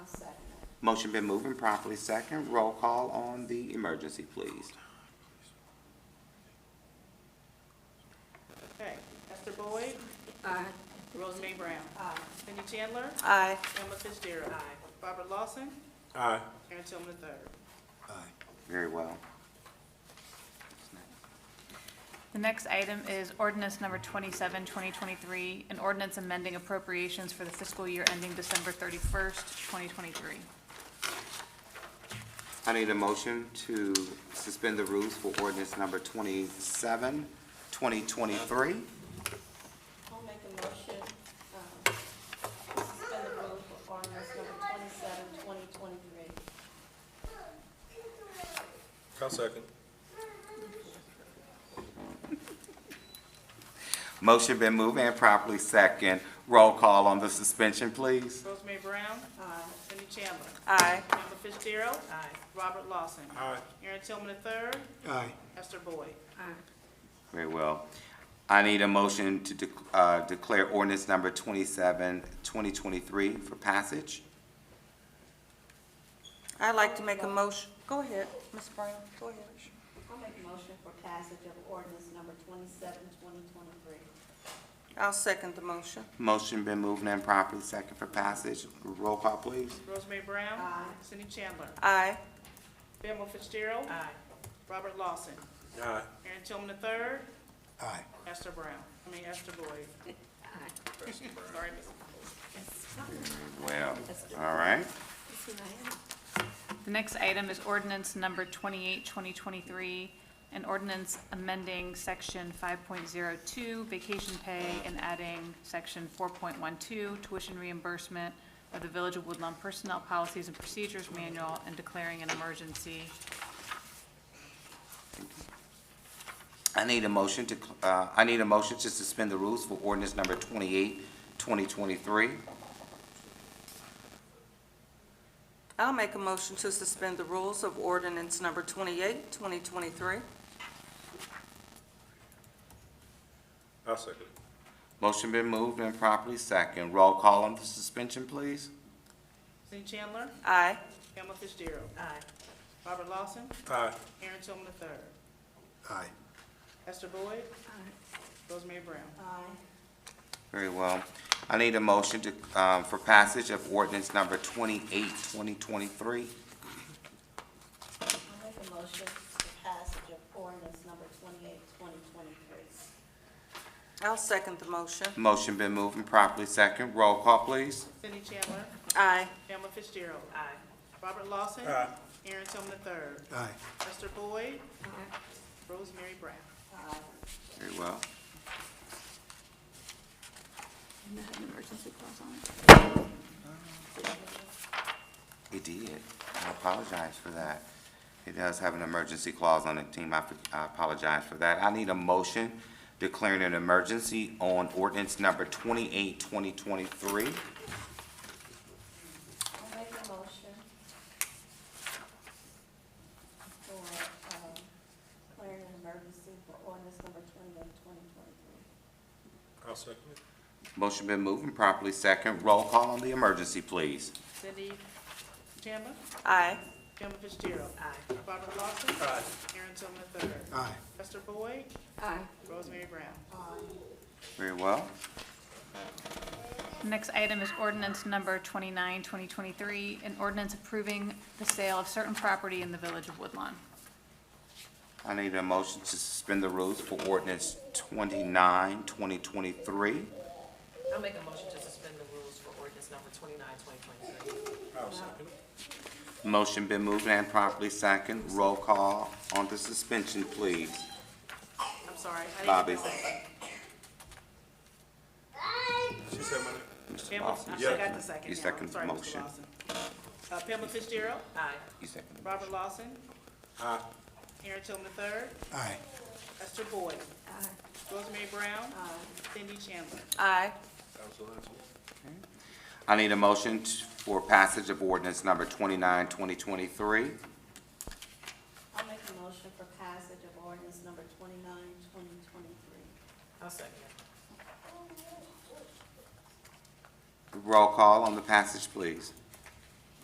Motion been moved and properly second. Roll call on the emergency, please. Okay, Esther Boyd, Aye. Rosemary Brown. Aye. Cindy Chandler, Aye. Emma Fitzgerald. Aye. Robert Lawson, Aye. Aaron Tillman III. Very well. The next item is ordinance number 27, 2023, an ordinance amending appropriations for the fiscal year ending December 31st, 2023. I need a motion to suspend the rules for ordinance number 27, 2023. I'll make a motion, um, to suspend the rules for ordinance number twenty-seven, twenty twenty-three. I'll second. Motion been moved and properly second. Roll call on the suspension, please. Rosemary Brown. Aye. Cindy Chandler. Aye. Emma Fitzgerald. Aye. Robert Lawson. Aye. Aaron Tillman III, Aye. Esther Boyd. Very well. I need a motion to dec- uh, declare ordinance number 27, 2023 for passage. I'd like to make a motion, go ahead, Ms. Brown, go ahead. I'll make a motion for passage of ordinance number twenty-seven, twenty twenty-three. I'll second the motion. Motion been moved and properly second for passage. Roll call, please. Rosemary Brown. Aye. Cindy Chandler. Aye. Emma Fitzgerald. Aye. Robert Lawson, Aye. Aaron Tillman III, Aye. Esther Brown, I mean Esther Boyd. Sorry, Miss. Well, all right. The next item is ordinance number 28, 2023, an ordinance amending section 5.02 vacation pay and adding section 4.12 tuition reimbursement of the Village of Woodlawn Personnel Policies and Procedures Manual and declaring an emergency. I need a motion to, cl- uh, I need a motion to suspend the rules for ordinance number 28, 2023. I'll make a motion to suspend the rules of ordinance number 28, 2023. I'll second. Motion been moved and properly second. Roll call on the suspension, please. Cindy Chandler. Aye. Emma Fitzgerald. Aye. Robert Lawson, Aye. Aaron Tillman III, Aye. Esther Boyd. Rosemary Brown. Aye. Very well. I need a motion to, um, for passage of ordinance number 28, 2023. I'll make a motion for passage of ordinance number twenty-eight, twenty twenty-three. I'll second the motion. Motion been moved and properly second. Roll call, please. Cindy Chandler. Aye. Emma Fitzgerald. Aye. Robert Lawson. Aye. Aaron Tillman III, Aye. Esther Boyd. Rosemary Brown. Aye. Very well. It did. I apologize for that. It does have an emergency clause on it, team. I I apologize for that. I need a motion declaring an emergency on ordinance number 28, 2023. I'll make a motion for, um, declaring an emergency for ordinance number twenty-eight, twenty twenty-three. I'll second it. Motion been moved and properly second. Roll call on the emergency, please. Cindy Chandler. Aye. Emma Fitzgerald. Aye. Robert Lawson. Aye. Aaron Tillman III, Aye. Esther Boyd. Aye. Rosemary Brown. Very well. The Next item is ordinance number 29, 2023, an ordinance approving the sale of certain property in the Village of Woodlawn. I need a motion to suspend the rules for ordinance 29, 2023. I'll make a motion to suspend the rules for ordinance number 29, 2023. I'll second it. Motion been moved and properly second. Roll call on the suspension, please. I'm sorry. I didn't Bobby. know. She said my name. Pamela, I Yeah. forgot the second. You now. second the Sorry, Mr. motion. Lawson. Uh, Pamela Fitzgerald, Aye. You second the Robert Lawson, Aye. Aaron Tillman III, Aye. Esther Boyd. Rosemary Brown. Cindy Chandler. Aye. That was the last one. I need a motion t- for passage of ordinance number 29, 2023. I'll make a motion for passage of ordinance number twenty-nine, twenty twenty-three. I'll second it. Roll call on the passage, please.